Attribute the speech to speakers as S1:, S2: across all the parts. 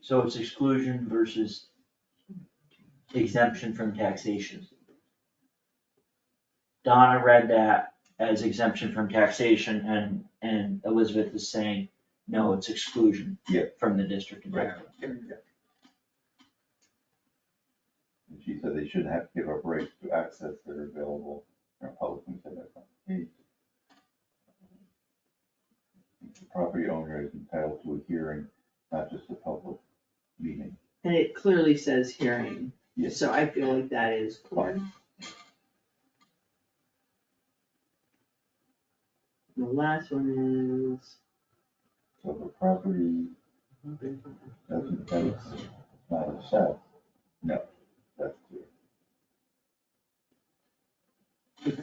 S1: So it's exclusion versus exemption from taxation. Donna read that as exemption from taxation and, and Elizabeth is saying, no, it's exclusion.
S2: Yeah.
S1: From the district and
S2: Right.
S1: revenue.
S2: And She said they shouldn't have to give up rights to access that are available in a public and private domain. The Property owner is entitled to a hearing, not just a public meeting.
S3: And it clearly says hearing,
S2: Yes,
S3: so I feel like that is clear. The last one is.
S2: so the property doesn't, that's not a set. No, that's clear.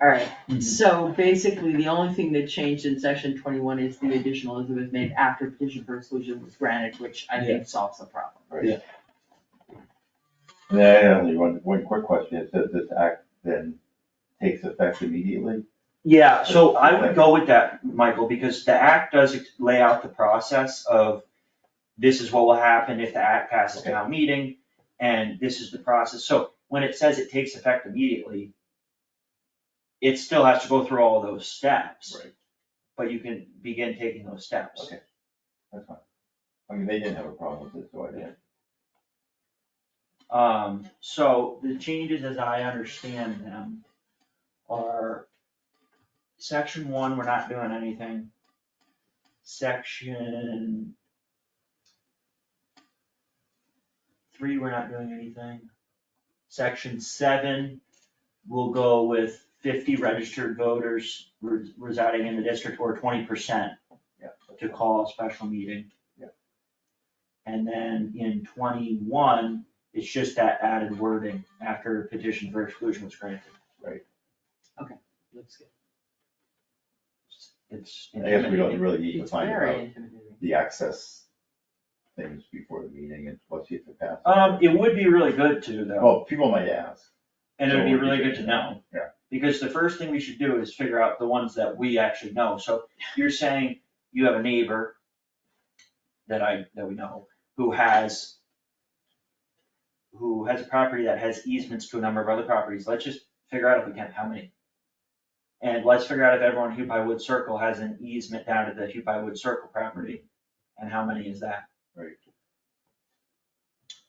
S3: Alright,
S1: Mhm.
S3: so basically, the only thing that changed in section twenty-one is the additional Elizabeth made after petition for exclusion was granted, which I think solves the problem.
S2: Right.
S1: Yeah.
S2: And then I only one, one quick question, it says this act then takes effect immediately?
S4: Yeah, so I would go with that, Michael, because the act does lay out the process of this is what will happen if the act passes
S2: Okay.
S4: town meeting, and this is the process. So when it says it takes effect immediately, it still has to go through all those steps.
S2: Right.
S4: But you can begin taking those steps.
S2: Okay. That's fine. I mean, they didn't have a problem with it, so I didn't.
S4: Um, so
S1: the changes as I understand them are section one, we're not doing anything. Section three, we're not doing anything. Section seven, we'll go with fifty registered voters re- residing in the district or twenty percent
S2: Yeah. that's
S1: to
S2: fine.
S1: call a special meeting.
S2: Yeah.
S1: And then in twenty-one, it's just that added wording after petition for exclusion was granted.
S3: Looks good.
S1: It's.
S2: I guess we don't really need to
S3: It's
S2: find
S3: very
S2: out
S3: intimidating.
S2: the access things before the meeting and let's see if it passes.
S4: Um, it would be really good to though,
S2: Well, Oh, people might ask.
S4: and it would be really good to know.
S2: Yeah.
S4: Because the first thing we should do is figure out the ones that we actually know. So you're saying you have a neighbor that I, that we know, who has who has a property that has easements to a number of other properties. Let's just figure out if we can, how many. And let's figure out if everyone in Hupai Wood Circle has an easement down to the Hupai Wood Circle property, and how many is that?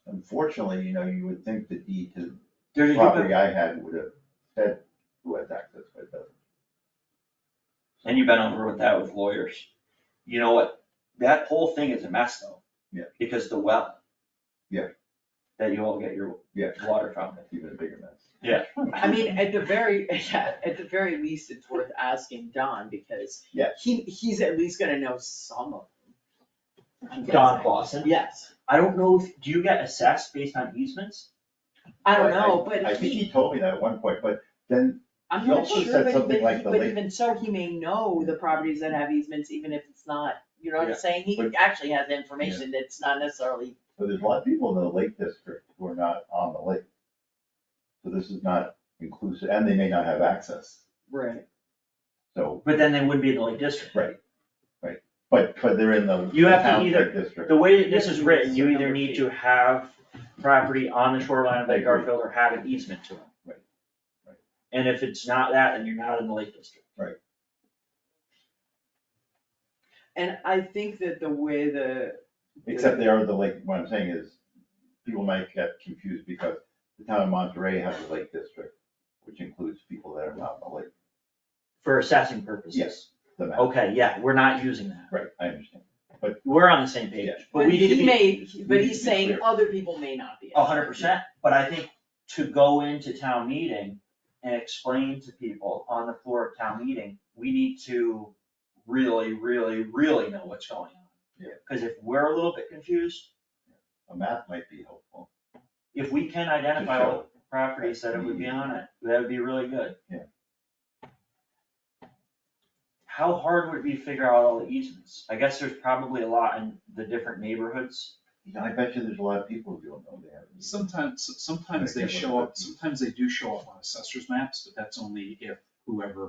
S2: Unfortunately, you know, you would think the deed to
S4: There's
S2: the
S4: a Hupai-
S2: property I had would have said who has access, but it doesn't.
S4: And you've been over with that with lawyers. You know what? That whole thing is a mess though.
S2: Yeah.
S4: Because the well.
S2: Yeah.
S4: That you all get your
S2: Yeah,
S4: water from.
S2: that's even a bigger mess.
S4: Yeah.
S3: I mean, at the very, at the very least, it's worth asking Don, because
S2: Yeah.
S3: he, he's at least gonna know some of them. I'm
S1: Don
S3: guessing.
S1: Clausen,
S3: Yes,
S4: I don't know if, do you get assessed based on easements?
S3: I don't
S2: But
S3: know,
S2: I
S3: but
S2: think
S3: he,
S2: he told me that at one point, but then,
S3: I'm
S2: he
S3: not
S2: also
S3: sure,
S2: said
S3: but
S2: something
S3: even,
S2: like the
S3: but
S2: late-
S3: even so, he may know the properties that have easements, even if it's not, you know what I'm
S4: Yeah,
S3: saying?
S2: but-
S3: He actually has information that's not necessarily,
S2: so there's a lot of people in the Lake District who are not on the lake. So this is not inclusive, and they may not have access,
S3: right,
S2: so,
S4: But then they wouldn't be in the Lake District.
S2: Right. but, but they're in the
S4: You have to
S2: town
S4: either-
S2: Lake District.
S4: The way that this is written, you either need to have property on the shoreline of Lake Garfield or have an easement to it.
S2: Right. Right.
S4: And if it's not that, then you're not in the Lake District.
S3: and I think that the way the,
S2: Except they are the lake, what I'm saying is, people might get confused because the town of Monterey has a lake district, which includes people that are not on the lake,
S4: For assessing purposes.
S2: Yes. the map.
S4: Okay, yeah, we're not using that.
S2: Right, I understand.
S4: We're on the same page,
S2: Yeah.
S4: but
S3: but
S4: we need to
S3: he
S4: be.
S3: may, but
S2: need
S3: he's
S2: to be
S3: saying
S2: clear. Oh,
S3: other people may not be.
S4: A hundred percent, but I think to go into town meeting and explain to people on the floor of town meeting, we need to really, really, really know what's going on.
S2: Yeah.
S4: Cause if we're a little bit confused,
S2: A map might be helpful.
S4: if we can
S2: to
S4: identify all
S2: show.
S4: the properties that it would be on it, that would be really good.
S2: Mm-hmm. Yeah.
S4: How hard would it be to figure out all the easements? I guess there's probably a lot in the different neighborhoods.
S2: You know, I bet you there's a lot of people who don't know they have. these.
S5: Sometimes, sometimes they show up, sometimes they do show up on assessor's maps, but that's only if whoever